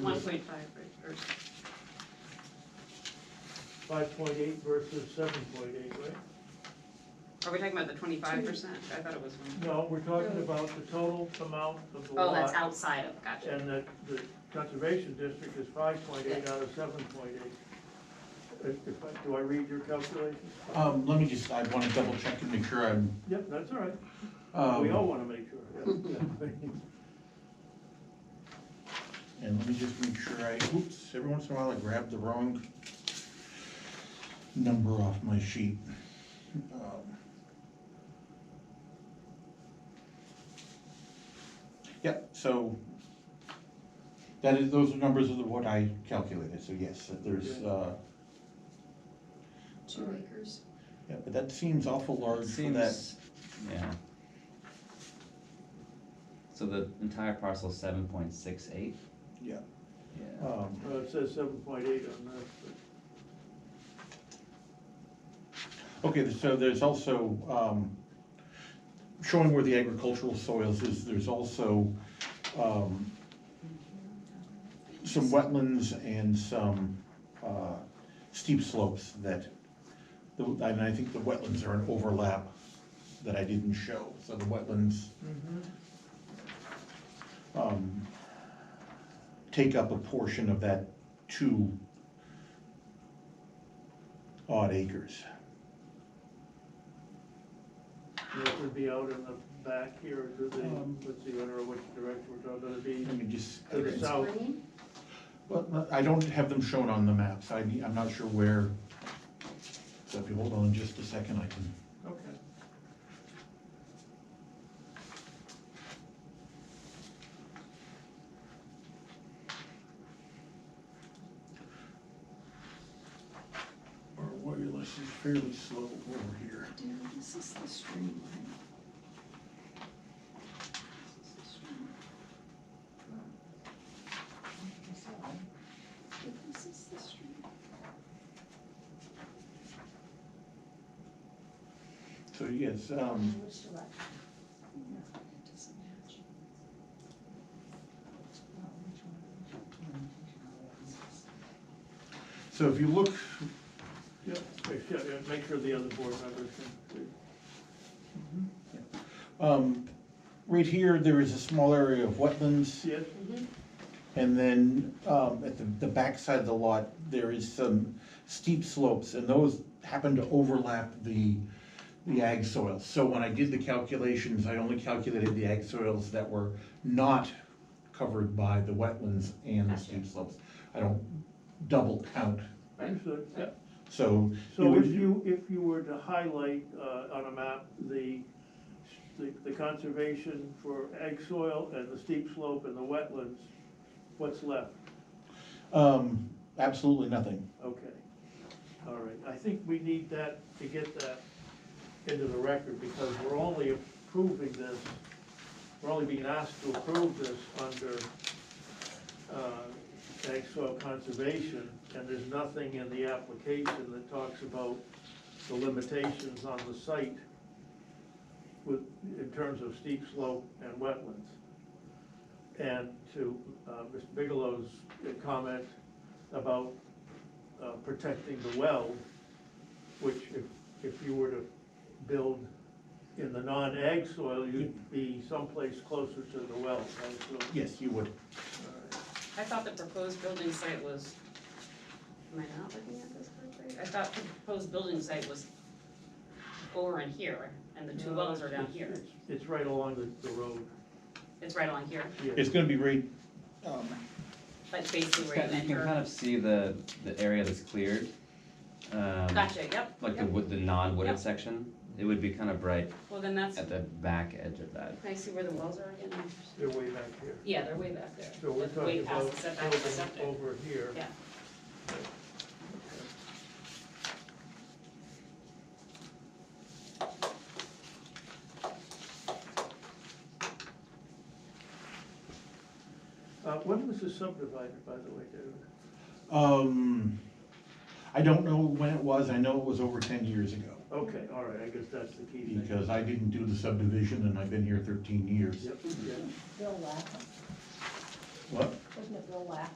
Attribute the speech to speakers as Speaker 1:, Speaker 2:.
Speaker 1: One
Speaker 2: versus,
Speaker 1: point five, right, or
Speaker 2: five point eight versus seven point eight, right?
Speaker 1: Are we talking about the twenty-five percent? I thought it was one.
Speaker 2: No, we're talking about the total amount of the lot.
Speaker 1: Oh, that's outside of, gotcha.
Speaker 2: And the, the conservation district is five point eight out of seven point eight. Do I read your calculations?
Speaker 3: Um, let me just, I wanna double check and make sure I'm,
Speaker 2: Yep, that's all right. We all
Speaker 3: um,
Speaker 2: wanna make sure. yeah, yeah.
Speaker 3: and let me just make sure I, oops, every once in a while I grab the wrong number off my sheet. Um, Yep, so that is, those are numbers of the, what I calculated, so yes, that there's, uh,
Speaker 4: Two acres.
Speaker 3: yeah, but that seems awful large for that.
Speaker 5: Seems, yeah. So the entire parcel is seven point six eight?
Speaker 3: Yeah.
Speaker 5: Yeah.
Speaker 3: Um,
Speaker 2: Uh, it says seven point eight on that, but.
Speaker 3: Okay, so there's also, um, showing where the agricultural soils is, there's also, um, some wetlands and some, uh, steep slopes that, the- and I think the wetlands are an overlap that I didn't show, so the wetlands, um, take up a portion of that two odd acres.
Speaker 2: It would be out in the back here, or do they,
Speaker 3: Um,
Speaker 2: let's see, I don't know which direction we're talking, about. it'd be
Speaker 3: Let me just.
Speaker 2: to the south.
Speaker 4: Green?
Speaker 3: Well, I don't have them shown on the maps, I, need- I'm not sure where, so if you hold on just a second, I can.
Speaker 2: Okay.
Speaker 3: Our wireless is fairly slow over here.
Speaker 4: Dude, this is the streamline. This is the streamline. Dude, This is the streamline.
Speaker 3: So yes, um,
Speaker 4: Which direction? No, it doesn't match. Well, which one?
Speaker 3: so if you look,
Speaker 2: Yep, make sure, yeah, make sure the other board members can,
Speaker 3: um, right here, there is a small area of wetlands,
Speaker 2: see it.
Speaker 3: and then, um, at the, the backside of the lot, there is some steep slopes, and those happen to overlap the, the ag soils. So when I did the calculations, I only calculated the ag soils that were not covered by the wetlands and the steep slopes. I don't double count,
Speaker 2: Understood, yeah.
Speaker 3: so. it
Speaker 2: So
Speaker 3: would-
Speaker 2: if you, if you were to highlight, uh, on a map, the, the, the conservation for egg soil and the steep slope and the wetlands, what's left?
Speaker 3: Um, absolutely nothing.
Speaker 2: Okay, all right, I think we need that to get that into the record, because we're only approving this, we're only being asked to approve this under, uh, ag soil conservation, and there's nothing in the application that talks about the limitations on the site with, in terms of steep slope and wetlands. And to, uh, Mr. Bigelow's comment about uh, protecting the well, which if, if you were to build in the non-ag soil, you'd be someplace closer to the well, right? So-
Speaker 3: Yes, you would.
Speaker 1: I thought the proposed building site was, am I not looking at this correctly? I thought the proposed building site was over in here, and the two wells are down here.
Speaker 2: It's- It's right along the, the road,
Speaker 1: It's right along here,
Speaker 2: yeah.
Speaker 3: It's gonna be right, um,
Speaker 1: like basically
Speaker 5: It's
Speaker 1: where
Speaker 5: got- You
Speaker 1: you
Speaker 5: can kind
Speaker 1: enter.
Speaker 5: of see the, the area that's cleared. um,
Speaker 1: Gotcha, yep,
Speaker 5: Like the
Speaker 1: yep.
Speaker 5: wood, the non-wooded
Speaker 1: Yep.
Speaker 5: section, it would be kind of bright
Speaker 1: Well, then that's,
Speaker 5: at the back edge of that.
Speaker 1: can I see where the wells are again?
Speaker 2: They're way back here.
Speaker 1: Yeah, they're way back there.
Speaker 2: So we're
Speaker 1: That's way
Speaker 2: talking about
Speaker 1: past the setback of the
Speaker 2: building
Speaker 1: septic.
Speaker 2: over here.
Speaker 1: Yeah.
Speaker 2: Uh, when was this subdivided, by the way, David?
Speaker 3: um, I don't know when it was, I know it was over ten years ago.
Speaker 2: Okay, all right, I guess that's the key thing.
Speaker 3: Because I didn't do the subdivision and I've been here thirteen years.
Speaker 2: Yep, yeah.
Speaker 6: Bill Lapham,
Speaker 3: What?
Speaker 6: wasn't it Bill Lapham?